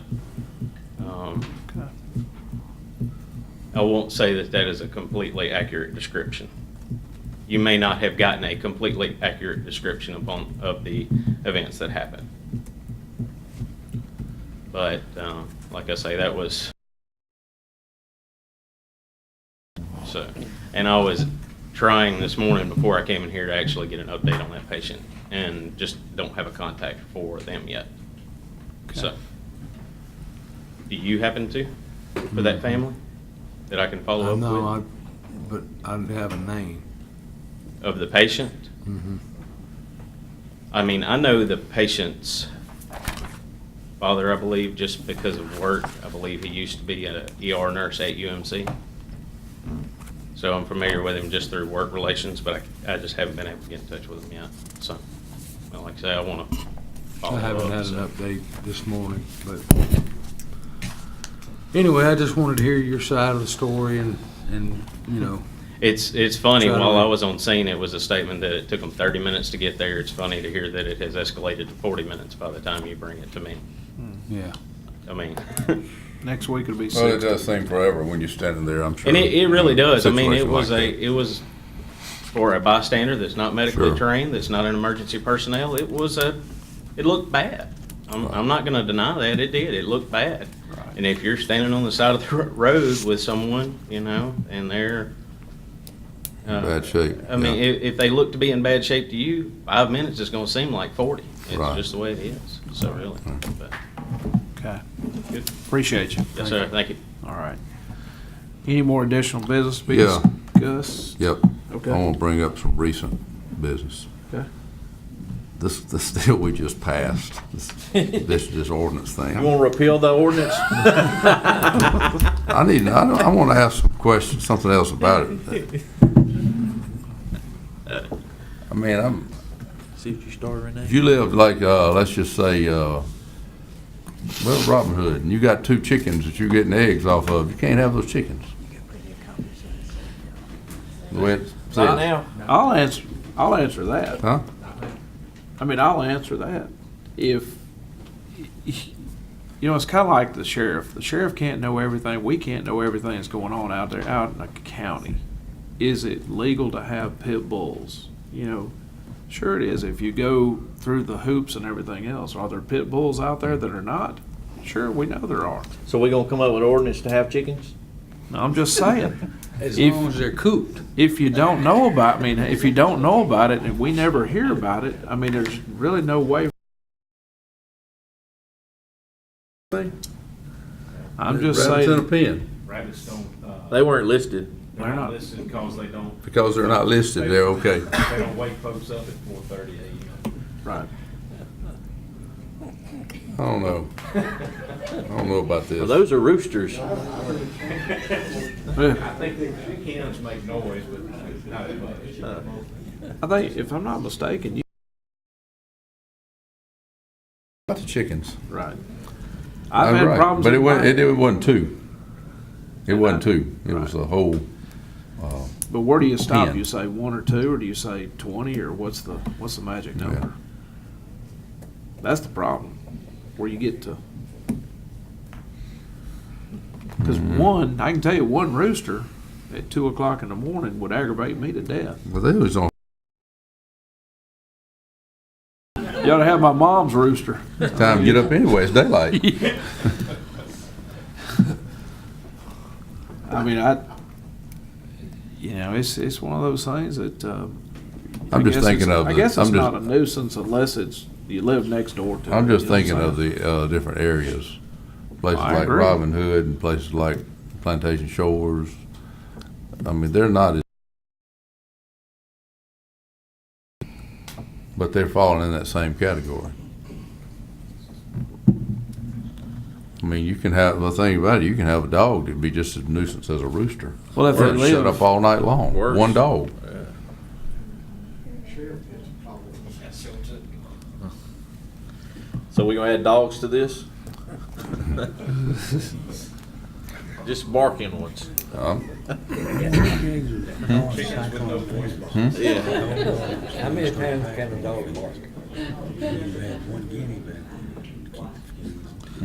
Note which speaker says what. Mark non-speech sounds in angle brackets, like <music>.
Speaker 1: Um, I won't say that that is a completely accurate description. You may not have gotten a completely accurate description upon, of the events that happened. But, um, like I say, that was. So, and I was trying this morning before I came in here to actually get an update on that patient and just don't have a contact for them yet. So, do you happen to, for that family, that I can follow
Speaker 2: I
Speaker 1: up
Speaker 2: know, Uh, I,
Speaker 1: with?
Speaker 2: but I don't have a name.
Speaker 1: Of the patient?
Speaker 2: Mhm.
Speaker 1: I mean, I know the patient's father, I believe, just because of work. I believe he used to be an ER nurse at UMC.
Speaker 2: Mm-hmm.
Speaker 1: So I'm familiar with him just through work relations, but I, I just haven't been able to get in touch with him yet. So, well, like I say, I want to follow
Speaker 2: I
Speaker 1: up.
Speaker 2: haven't had
Speaker 1: so.
Speaker 2: an update this morning, but anyway, I just wanted to hear your side of the story and, and, you know,
Speaker 1: It's, it's funny,
Speaker 2: Try to
Speaker 1: while
Speaker 2: re-
Speaker 1: I was on scene, it was a statement that it took them 30 minutes to get there. It's funny to hear that it has escalated to 40 minutes by the time you bring it to me.
Speaker 2: yeah.
Speaker 1: I mean,
Speaker 2: <laughs>
Speaker 3: Next week it'll be
Speaker 4: Well, Oh, it
Speaker 3: sixty.
Speaker 4: does seem forever when you're standing there, I'm sure.
Speaker 1: and it, it really
Speaker 4: you know,
Speaker 1: does. I mean, it
Speaker 4: situation
Speaker 1: was
Speaker 4: like
Speaker 1: a,
Speaker 4: that.
Speaker 1: it was for a bystander that's not medically
Speaker 4: Sure.
Speaker 1: trained, that's not an emergency personnel, it was a, it looked bad. I'm, I'm not gonna deny that, it did, it looked bad.
Speaker 3: Right.
Speaker 1: And if you're standing on the side of the <laughs> ro- road with someone, you know, and they're. uh,
Speaker 4: Bad shape,
Speaker 1: I mean,
Speaker 4: yeah.
Speaker 1: if, if they look to be in bad shape to you, five minutes is gonna seem like forty. It's
Speaker 4: Right. Mm-hmm.
Speaker 1: just the way it is, so really. but-
Speaker 3: Okay.
Speaker 1: Good.
Speaker 3: Appreciate you.
Speaker 1: Yes, sir, thank you.
Speaker 3: All right. Any more additional business to be
Speaker 4: Yeah. Oh.
Speaker 3: discussed?
Speaker 4: Yep. I
Speaker 3: Okay.
Speaker 4: want to bring up some recent business.
Speaker 3: Okay.
Speaker 4: This, this <laughs> deal we just passed, this, this, this ordinance thing.
Speaker 3: to repeal the ordinance?
Speaker 4: I need, I, don't- I want to ask some questions, something else about it. I mean, I'm,
Speaker 5: See what you start, Renee?
Speaker 4: if you live like, uh, let's just say, uh, well, Robin Hood, and you got two chickens that you're getting eggs off of, you can't have those chickens. The way it's
Speaker 1: Bye
Speaker 4: said.
Speaker 1: now.
Speaker 3: I'll answer, I'll answer that.
Speaker 4: Huh?
Speaker 3: I mean, I'll answer that. If, you know, it's kind of like the sheriff. The sheriff can't know everything. We can't know everything that's going on out there, out in the county. Is it legal to have pit bulls? You know, sure it is. If you go through the hoops and everything else, are there pit bulls out there that are not? Sure, we know there are.
Speaker 5: So we gonna come up with ordinance to have chickens?
Speaker 3: No, I'm just saying.
Speaker 2: As
Speaker 3: If-
Speaker 2: long as they're cooped.
Speaker 3: If you don't know about, I mean, if you don't know about it and we never hear about it, I mean, there's really no way. I'm just
Speaker 4: Rabbits in a
Speaker 3: saying,
Speaker 4: pen.
Speaker 1: Rabbits don't, uh,
Speaker 5: They weren't listed.
Speaker 3: They're not
Speaker 1: listed because they don't,
Speaker 4: Because they're not listed, they're okay.
Speaker 1: they don't wake folks up at four thirty AM.
Speaker 3: right.
Speaker 4: I don't know. I don't know about
Speaker 5: Well,
Speaker 4: this.
Speaker 5: those are roosters.
Speaker 3: I
Speaker 1: think the chickens make noise, but not as much.
Speaker 3: think, if I'm not mistaken, you,
Speaker 4: About the chickens.
Speaker 3: right. I've had
Speaker 4: Oh, Right,
Speaker 3: problems.
Speaker 4: But it
Speaker 3: in
Speaker 4: wasn't,
Speaker 3: my-
Speaker 4: it it wasn't two. It wasn't two. It was a whole,
Speaker 3: But where do you stop?
Speaker 4: Ten.
Speaker 3: You say one or two, or do you say twenty, or what's the, what's the magic
Speaker 4: Yeah.
Speaker 3: number? That's the problem, where you get to. Because
Speaker 4: Mm-hmm.
Speaker 3: one, I can tell you, one rooster at two o'clock in the morning would aggravate me to death.
Speaker 4: well, they was on,
Speaker 3: You ought to have my mom's rooster.
Speaker 4: time to get up anyway, it's <laughs> daylight.
Speaker 3: I mean, I, you know, it's, it's one of those things that, uh. I
Speaker 4: I'm just
Speaker 3: guess it's-
Speaker 4: thinking of
Speaker 3: I
Speaker 4: the-
Speaker 3: guess
Speaker 4: I'm
Speaker 3: it's
Speaker 4: just-
Speaker 3: not a nuisance unless it's, you live next door to it.
Speaker 4: I'm just
Speaker 3: you know what
Speaker 4: thinking of
Speaker 3: saying?
Speaker 4: the, uh, different areas. Places
Speaker 3: I
Speaker 4: like
Speaker 3: agree.
Speaker 4: Robin Hood and places like Plantation Shores. I mean, they're not as. But they're falling in that same category. I mean, you can have, the thing about it, you can have a dog that'd be just as nuisance as a rooster.
Speaker 3: Well, if
Speaker 4: Or
Speaker 3: they
Speaker 4: it'd Shut up
Speaker 3: live,
Speaker 4: all night long,
Speaker 5: Worse.
Speaker 4: one dog.
Speaker 5: So we gonna add dogs to this? Just barking ones.
Speaker 4: Um,
Speaker 5: Yeah.
Speaker 4: hmm?
Speaker 6: How many times can a dog bark?
Speaker 7: You had one guinea back